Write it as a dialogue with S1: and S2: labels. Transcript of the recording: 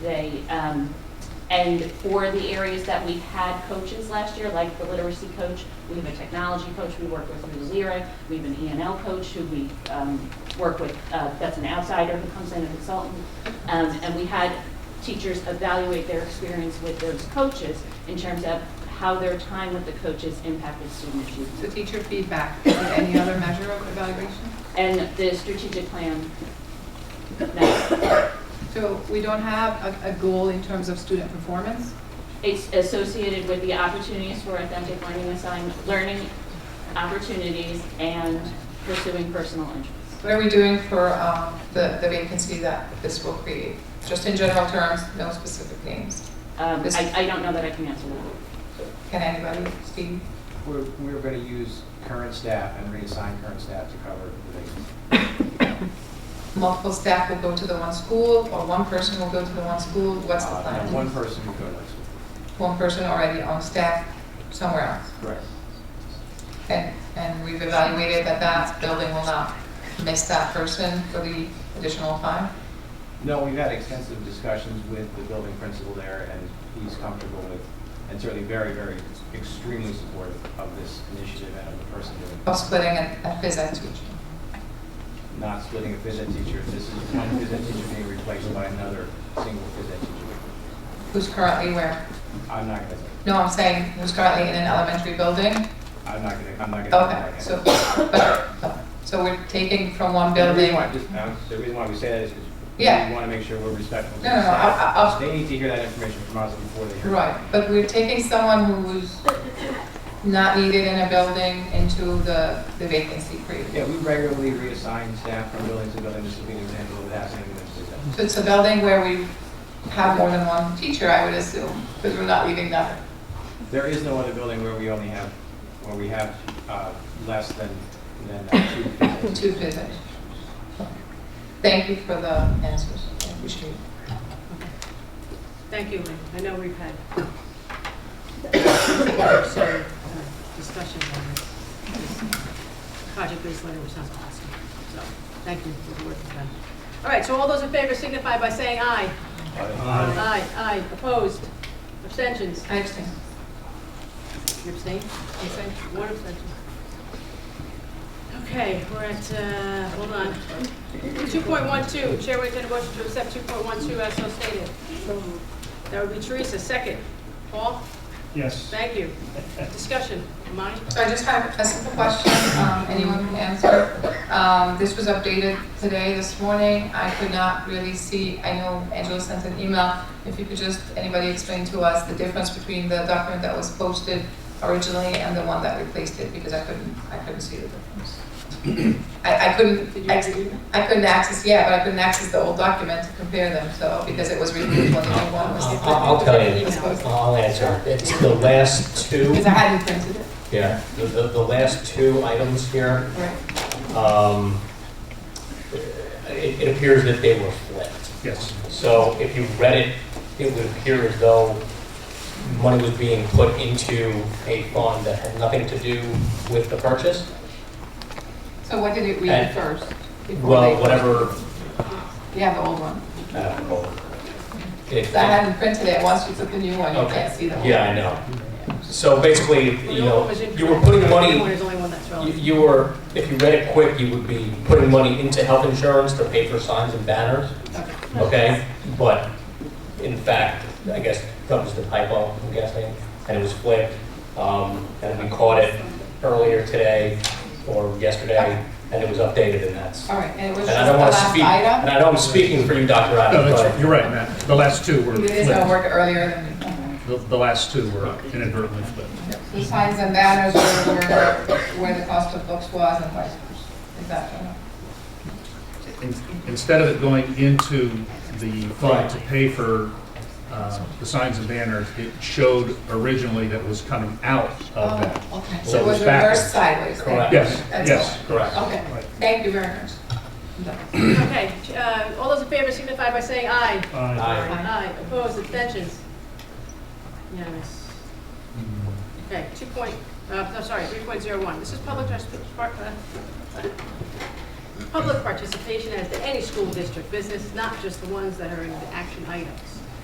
S1: They, um, and for the areas that we had coaches last year, like the literacy coach, we have a technology coach we work with through Lyra, we have an ENL coach who we um, work with, uh, that's an outsider who comes in as a consultant. Um, And we had teachers evaluate their experience with those coaches in terms of how their time with the coaches impacted student
S2: So
S1: achievement.
S2: teacher feedback, is there any other measure of evaluation?
S1: And the strategic plan, no,
S2: So we don't have a, a goal in terms of student performance?
S1: it's associated with the opportunities for authentic learning assign, learning opportunities and pursuing personal interests.
S3: What are we doing for um, the the vacancy that this will create? Just in general terms, no specific names.
S1: Um,
S3: This-
S1: I, I don't know that I can answer that.
S3: Can anybody, Steve?
S4: We're, we're going to use current staff and reassign current staff to cover the vacancy.
S3: Multiple staff will go to the one school, or one person will go to the one school? What's the
S4: Uh,
S3: plan?
S4: and One person who goes.
S3: One person already on staff somewhere else.
S4: Correct.
S3: And, and we've evaluated that that building will not miss that person for the additional time?
S4: No, we've had extensive discussions with the building principal there, and he's comfortable with, and certainly very, very extremely supportive of this initiative and of the person doing
S3: Of splitting a a phys ed teacher?
S4: it. Not splitting a phys ed teacher. This is one phys ed teacher being replaced by another single phys ed teacher.
S3: Who's currently where?
S4: I'm not going to,
S3: No, I'm saying who's currently in an elementary building?
S4: I'm not going to, I'm not going to.
S3: Okay, so, but, so we're taking from one
S4: The reason
S3: building.
S4: why, just, um, the reason why we say that is because
S3: Yeah.
S4: we want to make sure we're respectful. to
S3: No, no, no,
S4: the staff.
S3: I- I- I'll-
S4: They need to hear that information from us before they hear. it.
S3: Right, but we're taking someone who's not needed in a building into the, the vacancy created.
S4: Yeah, we regularly reassign staff from building to building, just to be an example of that, saying that.
S3: So it's a building where we have more than one teacher, I would assume, because we're not leaving that.
S4: There is no other building where we only have, where we have, uh, less than, than uh, two. physicians.
S3: Two physicians. Thank you for the answers. I appreciate it.
S5: Thank you, Lynn. I know we've had some discussions on this. This Project-based learning, which sounds awesome. So, thank you for the work you've done. All right, so all those in favor signify by saying aye.
S4: Uh,
S5: Aye, aye. Opposed? Abstentions?
S3: I understand.
S5: You abstain? Abstention? One abstention. Okay, we're at, uh, hold on. 2.12, Chair will entertain a motion to accept 2.12 as so stated. That would be Teresa, second. Paul?
S6: Yes.
S5: Thank you. Discussion, Monty?
S3: So I just have a simple question, um, anyone can answer. Um, This was updated today, this morning. I could not really see, I know Angela sent an email. If you could just, anybody explain to us the difference between the document that was posted originally and the one that replaced it, because I couldn't, I couldn't see the difference. I, I couldn't,
S5: Did you
S3: ex-
S5: review
S3: I couldn't access, yeah, but I couldn't access the old document to compare them, so, because it was removed when the new one was.
S7: I'll I'll tell you,
S3: Because
S7: I'll answer. It's the last two,
S3: I hadn't printed it,
S7: yeah, the, the the last two items here,
S3: right?
S7: um, it, it appears that they were flipped.
S6: Yes.
S7: So if you read it, it would appear as though money was being put into a fund that had nothing to do with the purchase.
S3: So what did it read
S7: And-
S3: first? before
S7: Well,
S3: they-
S7: whatever,
S3: Yeah, the old one.
S7: uh, it-
S3: I hadn't printed it, once you took the new one, you
S7: Okay.
S3: can't see the old.
S7: Yeah, I know. So basically, you know, you were putting money
S5: There's only one that's
S7: You-
S5: relevant.
S7: You were, if you read it quick, you would be putting money into health insurance to pay for signs and banners,
S5: Okay.
S7: okay? But in fact, I guess that was the typo, I'm guessing, and it was flipped. Um, And we caught it earlier today or yesterday, and it was updated and that's.
S3: All right, and it was
S7: And
S3: just
S7: I
S3: the
S7: don't want to
S3: last
S7: speak, and
S3: item?
S7: I know I'm speaking for you, Dr.
S6: No,
S7: Adams,
S6: that's,
S7: but
S6: you're right, Matt. The last two were
S3: You did not
S6: flipped.
S3: work earlier than,
S6: The, the last two were inadvertently flipped.
S3: the signs and banners were were where the cost of books was and vice versa. Is that correct?
S6: In- Instead of it going into the fund to pay for, uh, the signs and banners, it showed originally that was coming out of that.
S3: Oh, okay,
S6: So
S3: so
S6: it
S3: it was
S6: was back.
S3: reversed sideways then?
S7: Correct.
S6: Yes,
S3: That's
S6: yes, correct.
S3: Okay,
S6: Right.
S3: thank you very much. I'm done.
S5: Okay, uh, all those in favor signify by saying aye.
S7: Aye.
S5: Aye, opposed, abstentions? Unanimous. Okay, two point, uh, no, sorry, three point zero one, this is public trust, par- uh, uh, public participation as to any school district business, not just the ones that are in the action items.